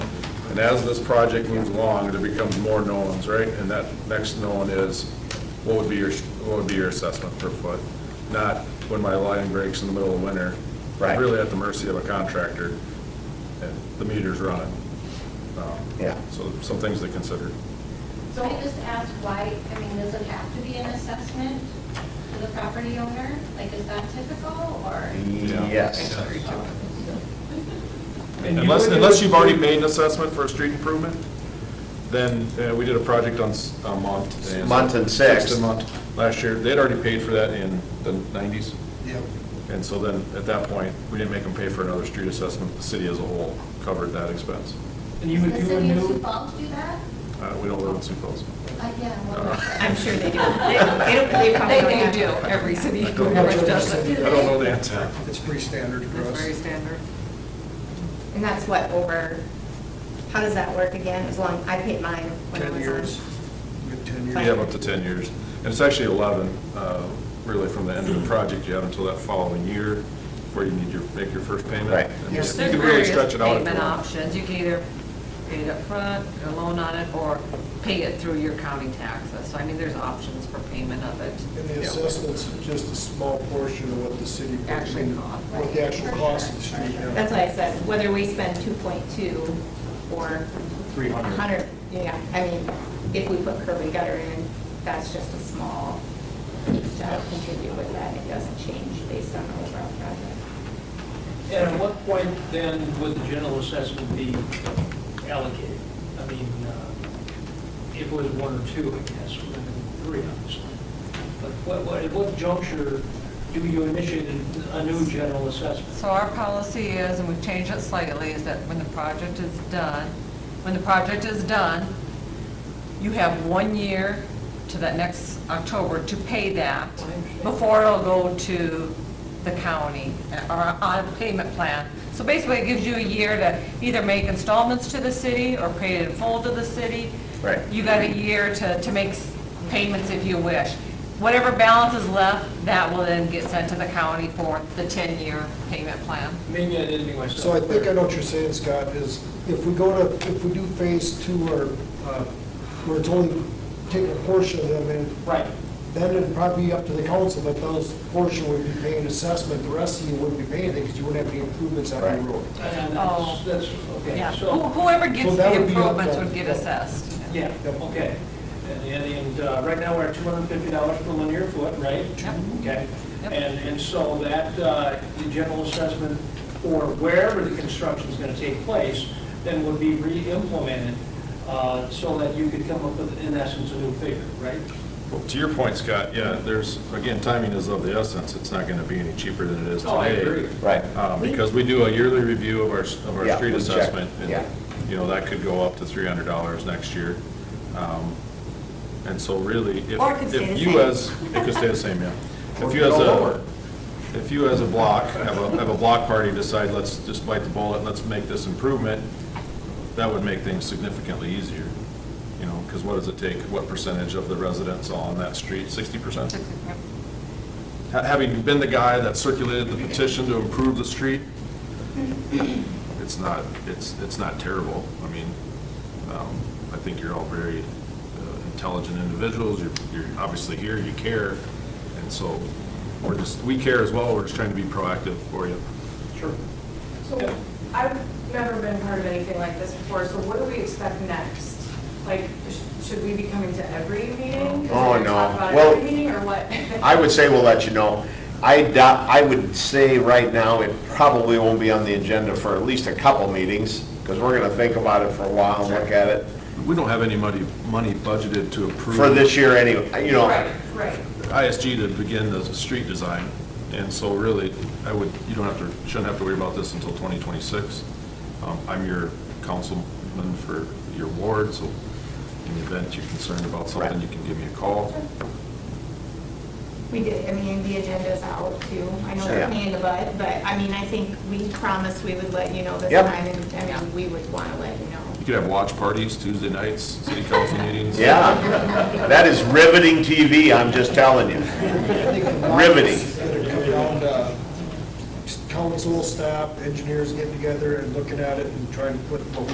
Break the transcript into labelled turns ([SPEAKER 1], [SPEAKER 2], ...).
[SPEAKER 1] And as this project moves along, there becomes more knowns, right? And that next known is, what would be your, what would be your assessment per foot? Not when my line breaks in the middle of winter. I'm
[SPEAKER 2] Right.
[SPEAKER 1] Really at the mercy of a contractor, and the meter's running. Um,
[SPEAKER 2] Yeah.
[SPEAKER 1] So some things to consider.
[SPEAKER 3] So I just ask why, I mean, does it have to be an assessment to the property owner? Like, is that typical, or?
[SPEAKER 2] Yes.
[SPEAKER 4] And you
[SPEAKER 1] Unless,
[SPEAKER 4] would do
[SPEAKER 1] unless
[SPEAKER 4] it-
[SPEAKER 1] you've already paid an assessment for a street improvement, then, uh, we did a project on, S- on Mont. and-
[SPEAKER 2] Mont and Sixth.
[SPEAKER 1] and Mont last year, they'd already paid for that in the nineties,
[SPEAKER 5] Yep.
[SPEAKER 1] and so then, at that point, we didn't make them pay for another street assessment, the city as a whole covered that expense.
[SPEAKER 4] And you
[SPEAKER 3] Does
[SPEAKER 4] would
[SPEAKER 3] the
[SPEAKER 4] do a
[SPEAKER 3] city of Sioux
[SPEAKER 4] new,
[SPEAKER 3] Falls do that?
[SPEAKER 1] Uh, we don't live in Sioux Falls.
[SPEAKER 3] Uh, yeah,
[SPEAKER 6] I'm
[SPEAKER 3] well,
[SPEAKER 6] sure they do. They- They don't- they probably don't have
[SPEAKER 7] do,
[SPEAKER 6] to.
[SPEAKER 7] every city
[SPEAKER 1] I
[SPEAKER 7] pretty
[SPEAKER 1] don't-
[SPEAKER 7] much does
[SPEAKER 1] I
[SPEAKER 7] it.
[SPEAKER 1] don't know the answer.
[SPEAKER 5] It's pretty standard for
[SPEAKER 7] That's very
[SPEAKER 5] us.
[SPEAKER 7] standard.
[SPEAKER 6] And that's what, over, how does that work again? As long, I paid mine when I was on.
[SPEAKER 5] Ten years, good ten years.
[SPEAKER 1] You have up to 10 years. And it's actually 11, uh, really, from the end of the project, you have until that following year where you need your, make your first payment.
[SPEAKER 2] Right.
[SPEAKER 1] And
[SPEAKER 7] Yes,
[SPEAKER 1] You
[SPEAKER 7] there's
[SPEAKER 1] can really
[SPEAKER 7] various
[SPEAKER 1] stretch it out. if you
[SPEAKER 7] payment
[SPEAKER 1] want.
[SPEAKER 7] options. You can either pay it up front, a loan on it, or pay it through your county taxes. So I mean, there's options for payment of it.
[SPEAKER 5] And the assessment's just a small portion of what the city.
[SPEAKER 7] Actually cost,
[SPEAKER 5] What the actual cost of the street. yeah.
[SPEAKER 6] That's why I said, whether we spend 2.2 or.
[SPEAKER 4] 300.
[SPEAKER 6] 100, yeah, I mean, if we put curb and gutter in, that's just a small piece to help contribute with that. It doesn't change based on the overall project.
[SPEAKER 4] and at what point then would the general assessment be allocated? I mean, uh, if it was one or two, I guess, or even three, obviously. But what, what, at what juncture do you initiate a- a new general assessment?
[SPEAKER 7] So our policy is, and we've changed it slightly, is that when the project is done, when the project is done, you have one year to that next October to pay that
[SPEAKER 4] I understand.
[SPEAKER 7] before it'll go to the county or on a payment plan. So basically, it gives you a year to either make installments to the city or pay it in full to the city.
[SPEAKER 2] Right.
[SPEAKER 7] You got a year to, to make s- payments if you wish. Whatever balance is left, that will then get sent to the county for the 10-year payment plan.
[SPEAKER 4] Maybe I didn't make myself
[SPEAKER 5] So I think I
[SPEAKER 4] clear.
[SPEAKER 5] know what you're saying, Scott, is if we go to, if we do phase two or, uh, where it's only taking a portion of them and.
[SPEAKER 4] Right.
[SPEAKER 5] Then it'd probably be up to the council, but those portion would be paying assessment, the rest of you wouldn't be paying anything because you wouldn't have any improvements on
[SPEAKER 2] Right.
[SPEAKER 5] your road.
[SPEAKER 4] And
[SPEAKER 7] Oh.
[SPEAKER 4] that's, that's,
[SPEAKER 7] Yeah,
[SPEAKER 4] okay, so.
[SPEAKER 7] Who- whoever
[SPEAKER 5] So
[SPEAKER 7] gets
[SPEAKER 5] that
[SPEAKER 7] the
[SPEAKER 5] would be up
[SPEAKER 7] improvements
[SPEAKER 5] then.
[SPEAKER 7] would get assessed.
[SPEAKER 4] Yeah, okay. And, and, and uh, right now, we're at two hundred and fifty dollars per linear foot, right?
[SPEAKER 7] Yep.
[SPEAKER 4] Okay.
[SPEAKER 7] Yep.
[SPEAKER 4] And, and so that, uh, the general assessment for wherever the construction's gonna take place, then would be re-implemented, uh, so that you could come up with, in essence, a new figure, right?
[SPEAKER 1] Well, To your point, Scott, yeah, there's, again, timing is of the essence. It's not going to be any cheaper than it is today.
[SPEAKER 4] Oh, I agree.
[SPEAKER 2] Right.
[SPEAKER 1] Um, Because we do a yearly review of our, of our
[SPEAKER 2] Yeah,
[SPEAKER 1] street
[SPEAKER 2] we check,
[SPEAKER 1] assessment. and,
[SPEAKER 2] yeah.
[SPEAKER 1] You know, that could go up to three hundred dollars next year. Um, And so really, if,
[SPEAKER 6] Or it could stay
[SPEAKER 1] if
[SPEAKER 6] the
[SPEAKER 1] you
[SPEAKER 6] same.
[SPEAKER 1] as, it could stay the same, yeah. If you
[SPEAKER 5] Or
[SPEAKER 1] as a,
[SPEAKER 5] go lower.
[SPEAKER 1] if you as a block, have a, have a block party decide, let's just bite the bullet, let's make this improvement, that would make things significantly easier, you know, because what does it take, what percentage of the residents on that street, sixty percent? Ha- Having been the guy that circulated the petition to improve the street, it's not, it's, it's not terrible. I mean, um, I think you're all very uh, intelligent individuals, you're, you're obviously here, you care, and so we're just, we care as well, we're just trying to be proactive for you.
[SPEAKER 4] Sure.
[SPEAKER 8] So I've never been part of anything like this before, so what do we expect next? Like, sh- should we be coming to every meeting? Is it
[SPEAKER 2] Oh,
[SPEAKER 8] gonna talk
[SPEAKER 2] no.
[SPEAKER 8] about
[SPEAKER 2] Well,
[SPEAKER 8] every meeting or what?
[SPEAKER 2] I would say we'll let you know. I doubt, I would say right now, it probably won't be on the agenda for at least a couple meetings, because we're gonna think about it for a while and look at it,
[SPEAKER 1] We don't have any money, money budgeted to approve.
[SPEAKER 2] for this year anyway, you know.
[SPEAKER 8] Right, right.
[SPEAKER 1] ISG to begin the street design, and so really, I would, you don't have to, shouldn't have to worry about this until 2026. Um, I'm your councilman for your ward, so in the event you're concerned about something,
[SPEAKER 2] Right.
[SPEAKER 1] you can give me a call.
[SPEAKER 6] We did, I mean, the agenda's out too. I know
[SPEAKER 2] Sure.
[SPEAKER 6] we're paying the bud, but I mean, I think we promised we would let you know this
[SPEAKER 2] Yep.
[SPEAKER 6] time. And I mean, we would want to let you know.
[SPEAKER 1] You could have watch parties Tuesday nights, city council meetings.
[SPEAKER 2] Yeah, that is riveting TV, I'm just telling you. Riveting.
[SPEAKER 5] It'd come down to council, staff, engineers getting together and looking at it and trying to put